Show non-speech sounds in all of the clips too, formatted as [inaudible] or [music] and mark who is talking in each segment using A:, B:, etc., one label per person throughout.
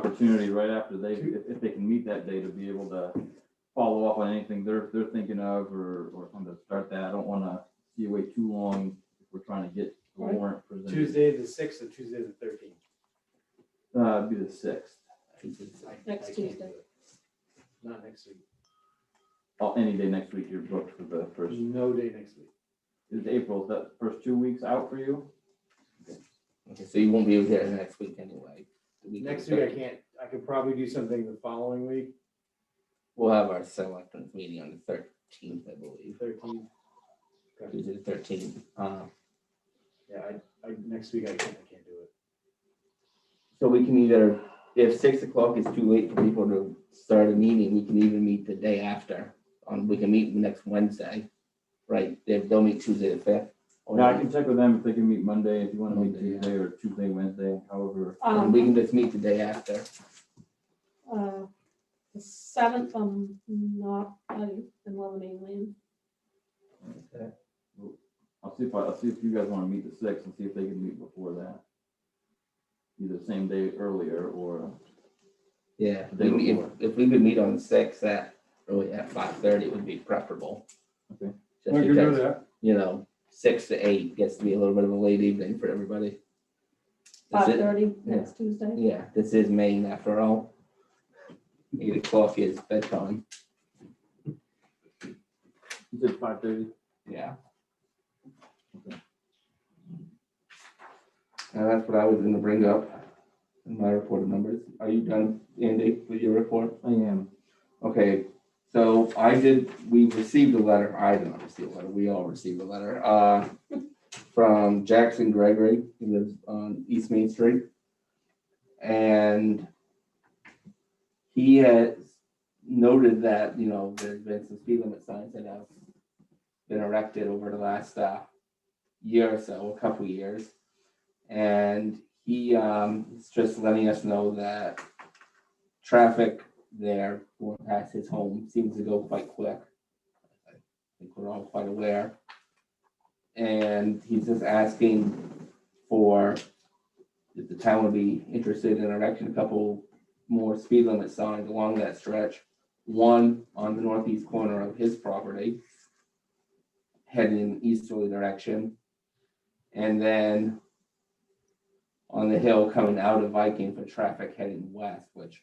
A: opportunity right after they, if, if they can meet that day to be able to follow up on anything they're, they're thinking of or, or something to start that. I don't wanna see you wait too long if we're trying to get the
B: Right.
A: warrant presented.
C: Tuesday the sixth or Tuesday the thirteenth.
A: Uh, it'd be the sixth,
B: Next Tuesday.
C: Not next week.
A: oh, any day next week you're booked for the first,
C: No day next week.
A: is April, is that first two weeks out for you?
D: Okay, so you won't be able to get it next week anyway. The week of
C: Next
D: the
C: week I
D: third.
C: can't, I could probably do something the following week,
D: We'll have our selectmen's meeting on the thirteenth, I believe,
C: thirteenth.
D: Tuesday the thirteenth. Uh,
C: Yeah, I, I, next week I can't, I can't do it.
D: so we can either, if six o'clock is too late for people to start a meeting, we can even meet the day after. On, we can meet next Wednesday, right? They, they'll meet Tuesday the fifth.
A: Oh, Yeah, I can check with them if they can meet Monday, if you wanna meet
D: Monday, yeah.
A: Tuesday or Tuesday, Wednesday, however.
D: And we
B: Um,
D: can just meet the day after.
B: uh, the seventh, I'm not, I'm in London, mainland.
A: I'll see if, I- I'll see if you guys wanna meet the sixth and see if they can meet before that. Either same day earlier or,
D: Yeah,
A: The day
D: we meet- if,
A: before.
D: if we could meet on the sixth at, really at five thirty would be preferable.
A: Okay.
D: Just because- you know, six to eight gets to be a little bit of a late evening for everybody. This
B: Five
D: is-
B: thirty next Tuesday.
D: Yeah, this is Maine after all. Eight o'clock is bedtime,
A: you said five thirty?
D: yeah.
A: Okay.
D: Now, that's what I was gonna bring up in my report of numbers. Are you done, Andy, with your report?
A: I am.
D: Okay, so I did, we received a letter, I did not receive a letter, we all received a letter, uh, from Jackson Gregory, he lives on East Main Street. And he has noted that, you know, there's been some speed limit signs that have been erected over the last, uh, year or so, a couple years. And he, um, is just letting us know that traffic there going past his home seems to go quite quick. I think we're all quite aware. And he's just asking for if the town would be interested in erecting a couple more speed limit signs along that stretch. One on the northeast corner of his property, heading in easterly direction. And then on the hill coming out of Viking for traffic heading west, which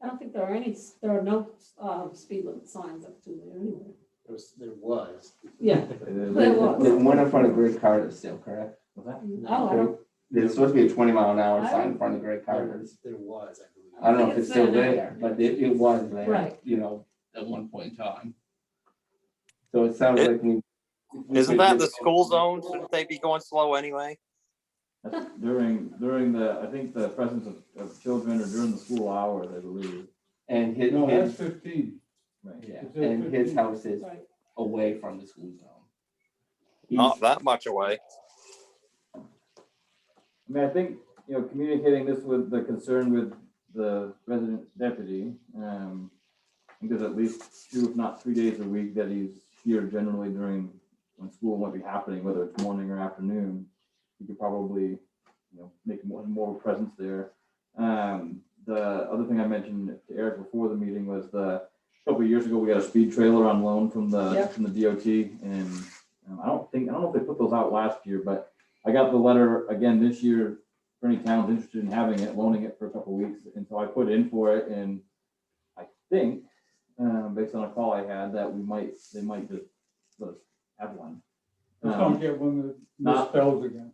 B: I don't think there are any, there are no, uh, speed limit signs up to there anyway.
C: There was, there was.
B: Yeah.
A: Was
B: But- it
D: The
B: was.
D: the one in front of Great Carter is still correct.
A: that-
B: Oh, I don't,
D: There's supposed to be a twenty mile an hour
B: I
D: sign in front of Great
C: There
D: Carter's.
C: there was, I believe.
D: I don't know if it's still
B: It's there now.
D: there, but it, it was there,
B: Right.
D: you know, at one point in time. So it sounds like we. we
E: Isn't
D: could
E: that
D: do-
E: the school zone? Shouldn't they be going slow anyway?
A: That's During, during the, I think the presence of, of children or during the school hours, I believe.
D: And his,
F: No, that's
D: his,
F: fifteen.
A: Right.
D: yeah,
F: It says
D: and his
F: 15.
D: house is
B: right.
D: away from the school zone.
E: Not
D: He's-
E: that much away.
A: I mean, I think, you know, communicating this with the concern with the resident deputy, um, I think there's at least two, if not three days a week that he's here generally during, when school might be happening, whether it's morning or afternoon. You could probably, you know, make more, more presence there. Um, the other thing I mentioned to Eric before the meeting was the, a couple of years ago, we got a speed trailer on loan from
B: Yeah.
A: the, from the DOT and um, I don't think, I don't know if they put those out last year, but I got the letter again this year for any towns interested in having it, loaning it for a couple weeks, and so I put in for it, and I think, um, based on a call I had, that we might, they might just let us have one.
F: Just
A: Um,
F: don't get one that
A: Not-
F: misspells again.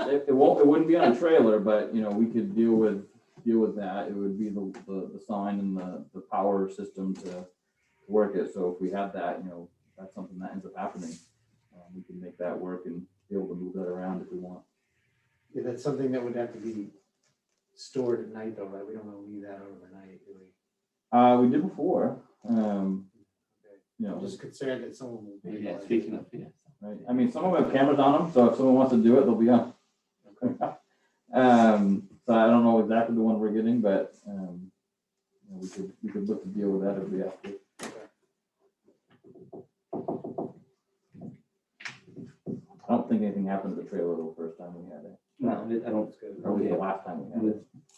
A: It, it won't, it wouldn't be on a trailer, but, you know, we could deal with, deal with that, it would be the, the, the sign and the, the power system to work it, so if we have that, you know, that's something that ends up happening. Um, We can make that work and be able to move that around if we want.
C: Yeah, that's something that would have to be stored at night though, right? We don't want to leave that overnight, do we?
A: Uh, we did before, um, you know,
C: I'm just concerned that someone will be.
D: Yeah, speaking of, yeah.
A: right, I mean, some of them have cameras on them, so if someone wants to do it, they'll be on. [laughs] Um, so I don't know exactly the one we're getting, but, um, you know, we could, we could look to deal with that if we have to. I don't think anything happened to the trailer the first time we had it,
D: No, I don't,
C: That's good.
A: or was it the last time we had
D: with
A: it?